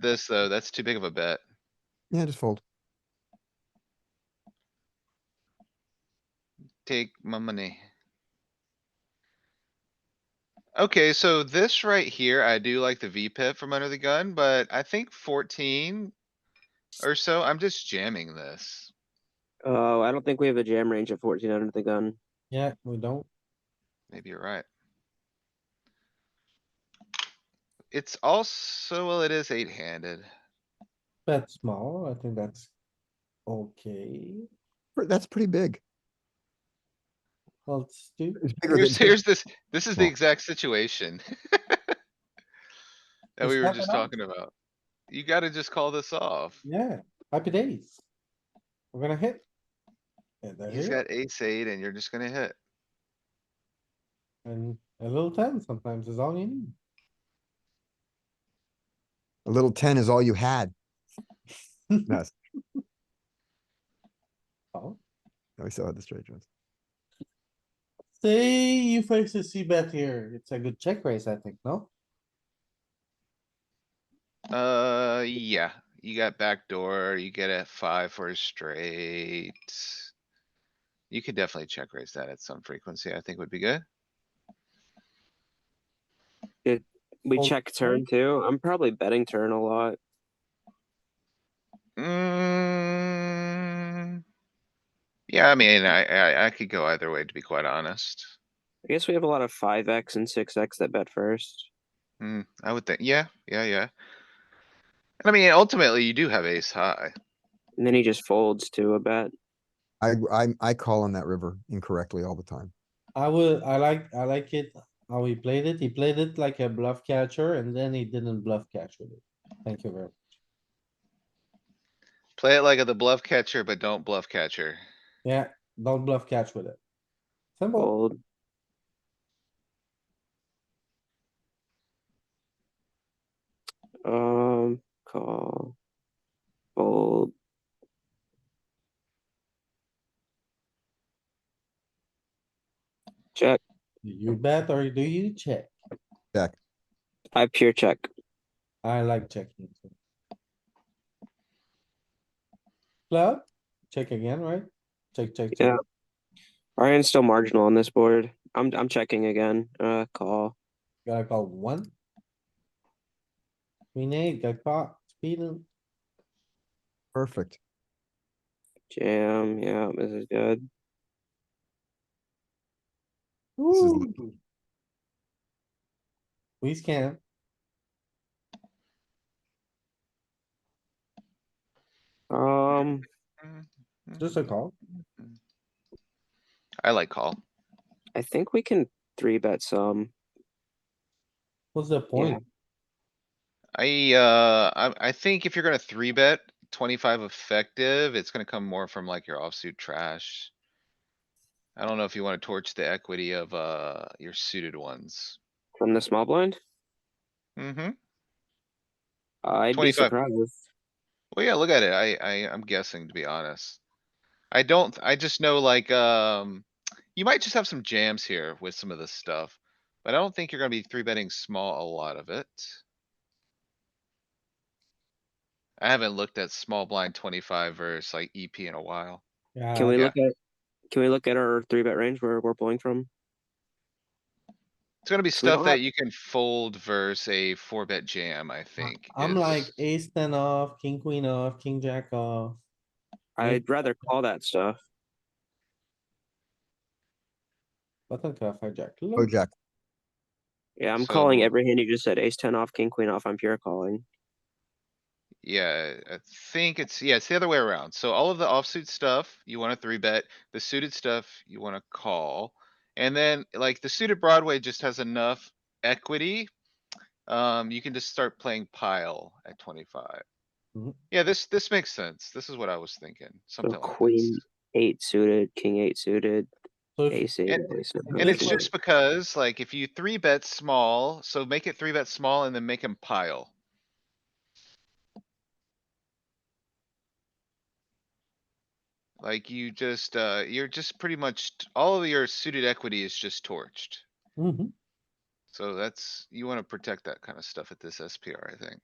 this, though. That's too big of a bet. Yeah, just fold. Take my money. Okay, so this right here, I do like the V pip from under the gun, but I think fourteen or so, I'm just jamming this. Oh, I don't think we have a jam range of 14 under the gun. Yeah, we don't. Maybe you're right. It's also, well, it is eight handed. Bet small, I think that's okay. Pr- That's pretty big. Well, it's two, It's bigger than Here's, two. here's this, this is the Well. exact situation. That It's we were not just enough. talking about. You gotta just call this off. yeah, happy days. We're gonna hit. And they're He's here, got ace eight and you're just gonna hit. and a little ten sometimes is all you need. A little ten is all you had. Yes, Oh, we still had the straight ones. say you face a C bet here, it's a good check raise, I think, no? Uh, yeah, you got backdoor, you get a five for a straight. You could definitely check raise that at some frequency, I think would be good. We Oh, check turn too. I'm probably betting turn a lot. Mm. Yeah, I mean, I, I, I could go either way, to be quite honest. I guess we have a lot of 5x and 6x that bet first. Hmm, I would think, yeah, yeah, yeah. And I mean, ultimately, you do have ace high. And then he just folds to a bet. I, I, I call on that river incorrectly all the time. I would, I like, I like it how he played it. He played it like a bluff catcher and then he didn't bluff catch with it. Thank you very much. Play it like a the bluff catcher, but don't bluff catcher. Yeah, don't bluff catch with it. Oh. Simple. Fold. Um, call. Fold. Check. Do You bet or do you check? I pure check. I like checking. too. Club, check again, right? Check, check, check. Yeah. Ryan's still marginal on this board. I'm I'm checking again. Uh, call. Gotta call one. Queen eight, got caught, speeding. Perfect. Jam. Yeah, this is good. is- Ooh. We scan. Um, Just a call. I like call. I think we can three bet some. What's the point? I, uh, I, I think if you're gonna three bet twenty-five effective, it's gonna come more from like your offsuit trash. I don't know if you wanna torch the equity of, uh, your suited ones. From the small blind? Mm-hmm. I'd be 25. surprised. Well, yeah, look at it. I, I, I'm guessing, to be honest. I don't, I just know like, um, you might just have some jams here with some of this stuff. But I don't think you're gonna be three betting small a lot of it. I haven't looked at small blind twenty-five versus like EP in a while. Yeah, Can we yeah. look at, can we look at our three bet range where we're pulling from? It's gonna be So we don't stuff that have- you can fold versus a four bet jam, I think. I'm is- like ace ten off, king queen off, king jack off. Yeah. I'd rather call that stuff. Button cuff, hijack. Oh, Look, Jack, Yeah, I'm calling So- every hand you just said. Ace ten off, king queen off. I'm pure calling. Yeah, I think it's, yeah, it's the other way around. So all of the offsuit stuff, you wanna three bet, the suited stuff, you wanna call. And then like the suited Broadway just has enough equity. Um, you can just start playing pile at twenty-five. Mhm. Yeah, this, this makes sense. This is what I was thinking, Mm-hmm. So something like this. queen eight suited, king eight suited, so if- ace eight. And- ace nine, And Really it's ace nine. just because like if you three bet small, so make it three bet small and then make him pile. Like you just, uh, you're just pretty much, t- all of your suited equity is just torched. Mhm. So that's, you wanna protect that kind of stuff at this SPR, I think.